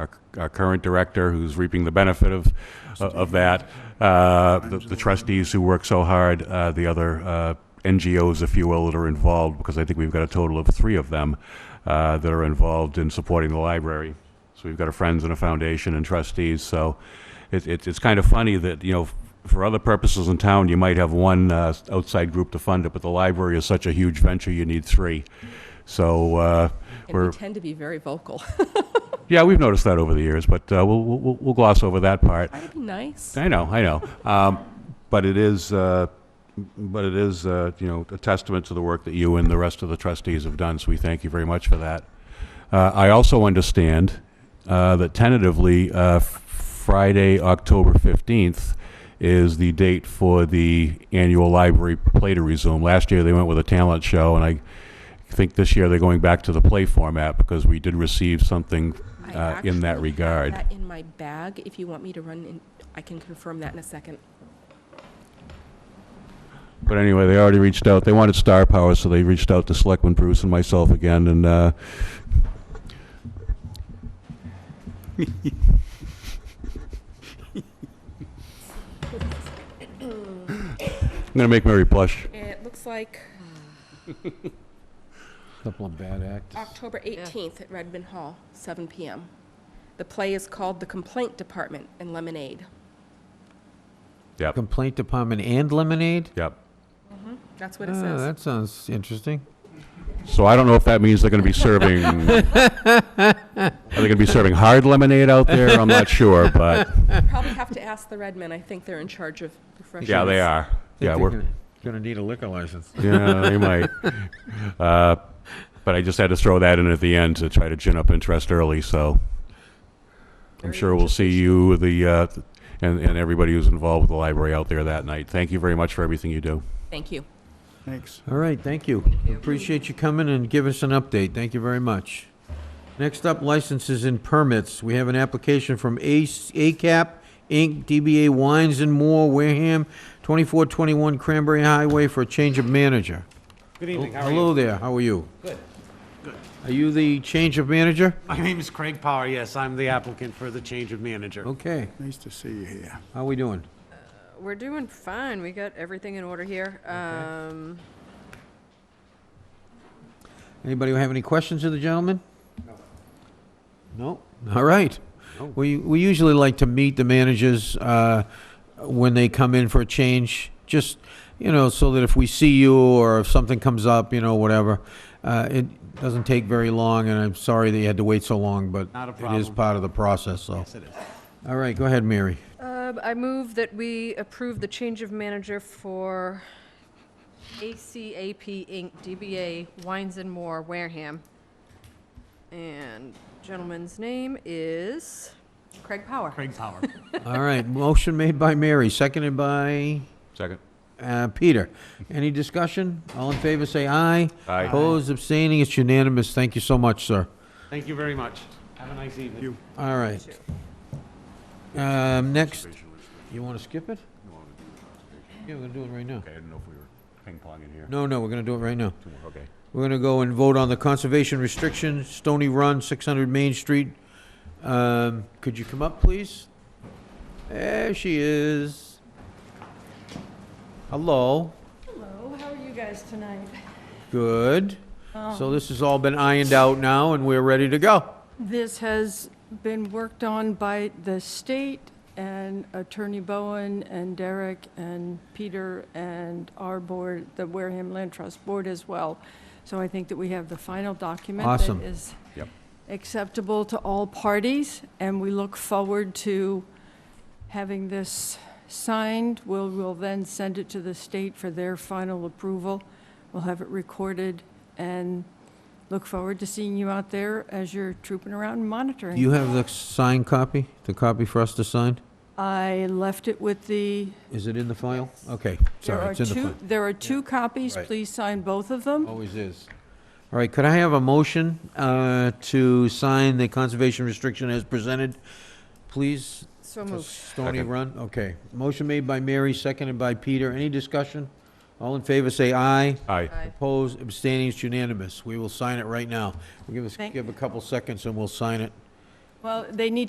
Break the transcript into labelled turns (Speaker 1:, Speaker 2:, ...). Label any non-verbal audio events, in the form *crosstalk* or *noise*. Speaker 1: our, our current director, who's reaping the benefit of, of that, uh, the the trustees who work so hard, uh, the other uh, NGOs, if you will, that are involved, because I think we've got a total of three of them uh, that are involved in supporting the library. So we've got a Friends and a Foundation and trustees, so it, it- it's kind of funny that, you know, for other purposes in town, you might have one uh, outside group to fund it, but the library is such a huge venture, you need three. So uh,
Speaker 2: And
Speaker 1: we're,
Speaker 2: we tend to be very vocal. *laughs*
Speaker 1: yeah, we've noticed that over the years, but uh, we'll, we'll we'll gloss over that part.
Speaker 2: That'd be nice.
Speaker 1: I know, I know. Um, But it is, uh, but it is, uh, you know, a testament to the work that you and the rest of the trustees have done, so we thank you very much for that. Uh, I also understand uh, that tentatively, uh, f- Friday, October 15th is the date for the annual library play to resume. Last year, they went with a talent show, and I think this year they're going back to the play format because we did receive something
Speaker 2: I
Speaker 1: uh, in that
Speaker 2: actually have
Speaker 1: regard.
Speaker 2: that in my bag, if you want me to run in, I can confirm that in a second.
Speaker 1: But anyway, they already reached out. They wanted star power, so they reached out to Selectman Bruce and myself again, and, uh, *laughs* I'm gonna make Mary blush.
Speaker 2: It looks like
Speaker 3: Couple of bad acts.
Speaker 2: October 18th at Redmond Hall, 7 PM. The play is called The Complaint Department and Lemonade.
Speaker 1: Yep,
Speaker 3: Complaint department and lemonade?
Speaker 1: yep.
Speaker 2: That's what it
Speaker 3: Oh,
Speaker 2: says.
Speaker 3: that sounds interesting.
Speaker 1: So I don't know if that means they're gonna be *laughs* serving, are they gonna be serving hard lemonade out there? I'm not sure, but,
Speaker 2: Probably have to ask the Redmen. I think they're in charge of refreshments.
Speaker 1: yeah, they are. Yeah, we're.
Speaker 3: Gonna need a liquor license.
Speaker 1: Yeah, they might. Uh, But I just had to throw that in at the end to try to gin up interest early, so I'm
Speaker 2: Very
Speaker 1: sure we'll see you, the, uh, and, and everybody who's involved with the library out there that night. Thank you very much for everything you do.
Speaker 2: Thank you.
Speaker 4: Thanks.
Speaker 3: All right, thank you. Appreciate you coming and giving us an update. Thank you very much. Next up, licenses and permits. We have an application from Ace, ACAP, Inc., DBA Wines and More, Wareham, 2421 Cranberry Highway for a change of manager.
Speaker 5: Good
Speaker 4: Oh,
Speaker 5: evening, how are you?
Speaker 3: Hello there, how are you?
Speaker 5: Good.
Speaker 3: Are you the change of manager?
Speaker 5: My name is Craig Power, yes, I'm the applicant for the change of manager.
Speaker 3: Okay,
Speaker 4: Nice to see you here.
Speaker 3: how we doing?
Speaker 6: We're doing fine. We got everything in order here. Um,
Speaker 3: Anybody have any questions of the gentleman? No. No? All right. We, we usually like to meet the managers uh, when they come in for a change, just, you know, so that if we see you or if something comes up, you know, whatever, uh, it doesn't take very long, and I'm sorry that you had to wait so long, but
Speaker 5: Not a
Speaker 3: it is
Speaker 5: problem.
Speaker 3: part of the process, so.
Speaker 5: Yes, it is.
Speaker 3: All right, go ahead, Mary.
Speaker 6: uh, I move that we approve the change of manager for ACAP Inc., DBA Wines and More, Wareham. And gentleman's name is Craig Power.
Speaker 5: Craig
Speaker 4: *laughs*
Speaker 5: Power.
Speaker 3: All right, motion made by Mary, seconded by
Speaker 1: Second.
Speaker 3: Uh, Peter, any discussion? All in favor, say aye.
Speaker 1: Aye.
Speaker 3: Opposed, abstaining, it's unanimous. Thank you so much, sir.
Speaker 5: Thank you very much. Have a nice evening.
Speaker 4: You.
Speaker 3: All right. Um, next, you want to skip it? Yeah, we're gonna do it right now.
Speaker 1: Okay, I didn't know if we were ping-ponging here.
Speaker 3: No, no, we're gonna do it right now.
Speaker 1: Two more, Okay.
Speaker 3: We're gonna go and vote on the conservation restriction, Stony Run, six hundred Main Street. Um, could you come up, please? There she is. Hello,
Speaker 7: Hello, Oh, how are you guys tonight?
Speaker 3: good.
Speaker 7: Oh.
Speaker 3: So this has all been ironed out now, and we're ready to go.
Speaker 7: This has been worked on by the state and Attorney Bowen and Derek and Peter and our board, the Wareham Land Trust Board as well. So I think that we have the final document
Speaker 3: Awesome.
Speaker 7: that is
Speaker 1: Yep.
Speaker 7: acceptable to all parties, and we look forward to having this signed. We'll, we'll then send it to the state for their final approval. We'll have it recorded and look forward to seeing you out there as you're trooping around and monitoring.
Speaker 3: You have the signed copy, the copy for us to sign?
Speaker 7: I left it with the,
Speaker 3: Is it in the file? Okay,
Speaker 7: there
Speaker 3: sorry,
Speaker 7: are
Speaker 3: it's in the
Speaker 7: two,
Speaker 3: file.
Speaker 7: there are two copies.
Speaker 3: Right. Oh.
Speaker 7: Please sign both of them.
Speaker 3: Always is. All right, could I have a motion uh, to sign the conservation restriction as presented, please?
Speaker 6: So
Speaker 3: for
Speaker 6: moved.
Speaker 3: Stony
Speaker 1: Second.
Speaker 3: Run, okay. Motion made by Mary, seconded by Peter. Any discussion? All in favor, say aye.
Speaker 1: Aye.
Speaker 6: Aye.
Speaker 3: Opposed, abstaining, it's unanimous. We will sign it right now. We'll give us,
Speaker 7: Thank-
Speaker 3: give a couple seconds and we'll sign it.
Speaker 7: Well, they need to